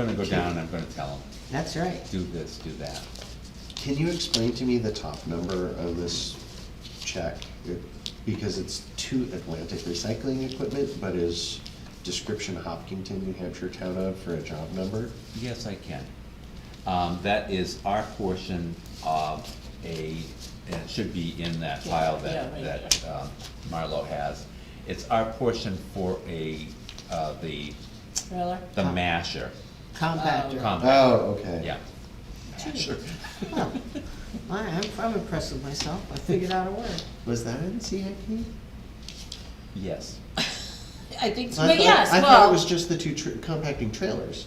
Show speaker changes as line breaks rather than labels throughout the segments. I'm gonna go down and I'm gonna tell them,
That's right.
do this, do that.
Can you explain to me the top number of this check? It- Because it's to Atlantic Recycling Equipment, but is description Hopkinton, New Hampshire town of for a job number?
Yes, I can. Um, that is our portion of a, and it should be in that file that,
Yeah, right
that, um, Marlo has. It's our portion for a, uh, the,
Trailer?
the masher,
Compactor. All
Um,
compact,
Oh, okay.
yeah. Masher.
right, I'm, I'm impressed with myself. I figured out a word.
Was that in CIP?
Yes,
I think, so,
I
but
thought-
yes,
I thought it was
well,
just the two tr- compacting trailers.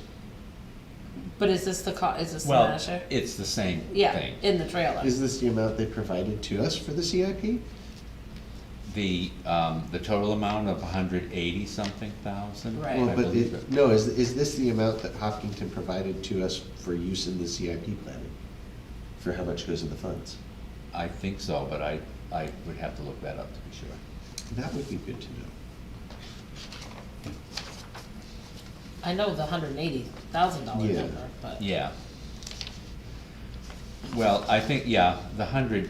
but is this the co, is this the
well,
masher?
it's the same thing.
Yeah, in the trailer.
Is this the amount they provided to us for the CIP?
The, um, the total amount of hundred eighty something thousand.
Right.
I
Well, but
believe
it, no, is, is this the amount that Hopkinton provided to us for use in the CIP planning? For how much goes in the funds?
I think so, but I, I would have to look that up to be sure.
That would be good to know.
I know the hundred and eighty thousand dollar
Yeah.
number, but,
Yeah. Well, I think, yeah, the hundred,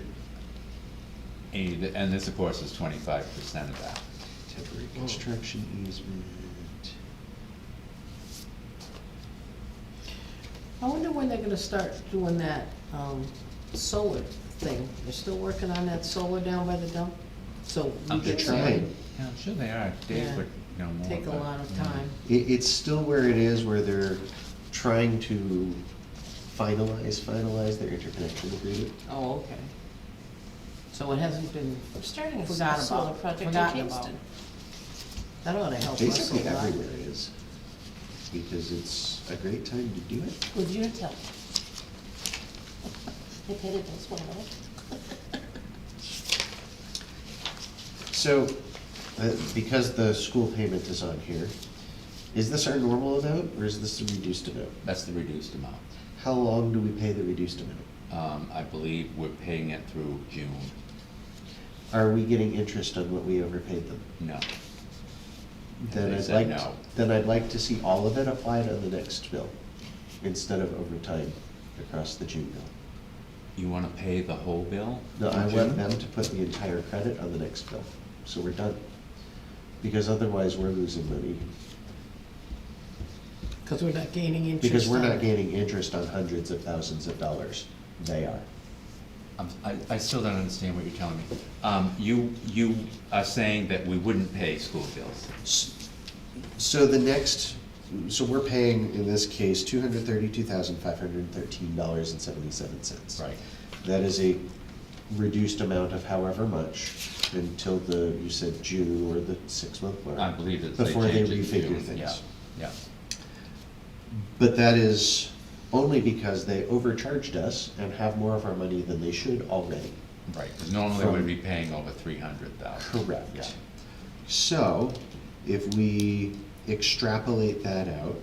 and and this of course is twenty-five percent of that.
Temporary construction easement.
I wonder when they're gonna start doing that, um, solar thing. They're still working on that solar down by the dump, so we
I'm
can
sure
trying.
really
Yeah, I'm sure they are, Dave
Yeah.
would know more.
take a
about-
lot of
yeah.
time.
It, it's still where it is, where they're trying to finalize, finalize their interconnection agreement.
Oh, okay. So it hasn't been,
I'm starting a
Forgot
s- solar
about-
project in
forgotten about.
Kingston.
that ought to help us Oh, a
Basically
lot.
everywhere it is, because it's a great time to do it.
Would you tell? They paid it this well.
So, uh, because the school payment is on here, is this our normal amount, or is this the reduced amount?
That's the reduced amount.
How long do we pay the reduced amount?
Um, I believe we're paying it through June,
Are we getting interest on what we overpaid them?
no.
Then
They
I'd
said
like,
no.
then I'd like to see all of it applied on the next bill, instead of overtime across the June bill.
You wanna pay the whole bill?
No, I
in
want
June?
them to put the entire credit on the next bill, so we're done. Because otherwise, we're losing money,
Cause we're not gaining interest.
because we're
on
not
it.
gaining interest on hundreds of thousands of dollars. They are.
I'm, I, I still don't understand what you're telling me. Um, you, you are saying that we wouldn't pay school bills.
S- So the next, so we're paying, in this case, two hundred thirty-two thousand, five hundred thirteen dollars and seventy-seven cents.
Right.
That is a reduced amount of however much until the, you said June or the six-month mark.
I believe that they
Before they
changed it to
refigure
June,
things.
Yeah,
But that is only because they overcharged us and have more of our money than they should already.
yeah, right, because normally we'd be paying over three hundred thousand. Yeah.
Correct. So, if we extrapolate that out,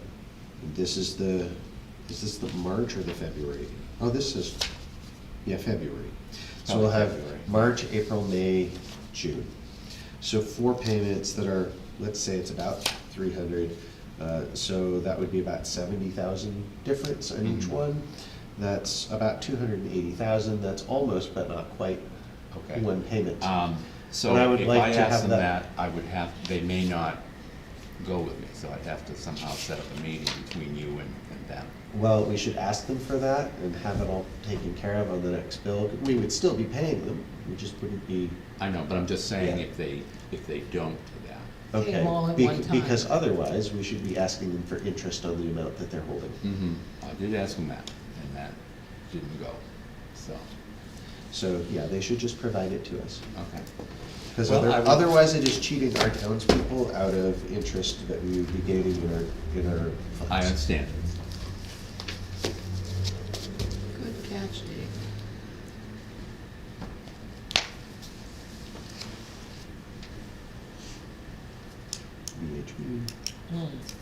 this is the, is this the March or the February? Oh, this is, yeah, February. So we'll have
Probably Oh, February.
March, April, May, June. So four payments that are, let's say it's about three hundred, uh, so that would be about seventy thousand difference on each
Mhm.
one. That's about two hundred and eighty thousand, that's almost but not quite
Okay.
one payment.
Um, so
And I would
if
like
I
to have
asked them that,
that-
I would have, they may not go with me, so I'd have to somehow set up a meeting between you and, and them.
Well, we should ask them for that and have it all taken care of on the next bill. We would still be paying them, we just wouldn't be,
I know, but I'm just saying
Yeah.
if they, if they don't do that.
Pay
okay.
them all at
bec-
one time.
Because otherwise, we should be asking them for interest on the amount that they're holding.
Mm-hmm. I did ask them that, and that didn't go, so,
So, yeah, they should just provide it to us.
okay.
Because
Well, I would-
otherwise, it is cheating our townspeople out of interest that we would be gaining in our, in our funds.
I understand.
Good catch, Dave.
VHB.
Hmm.
Oh,